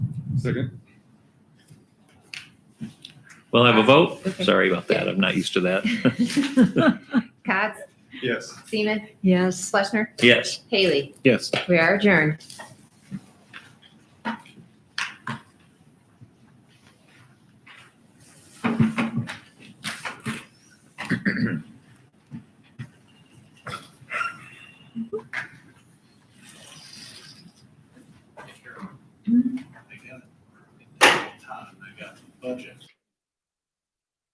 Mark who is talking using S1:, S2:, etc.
S1: Second.
S2: We'll have a vote. Sorry about that. I'm not used to that.
S3: Cots,
S1: Yes.
S3: Seaman,
S4: Yes.
S3: Fleshner,
S2: Yes.
S3: Haley.
S2: Yes.
S3: We are adjourned.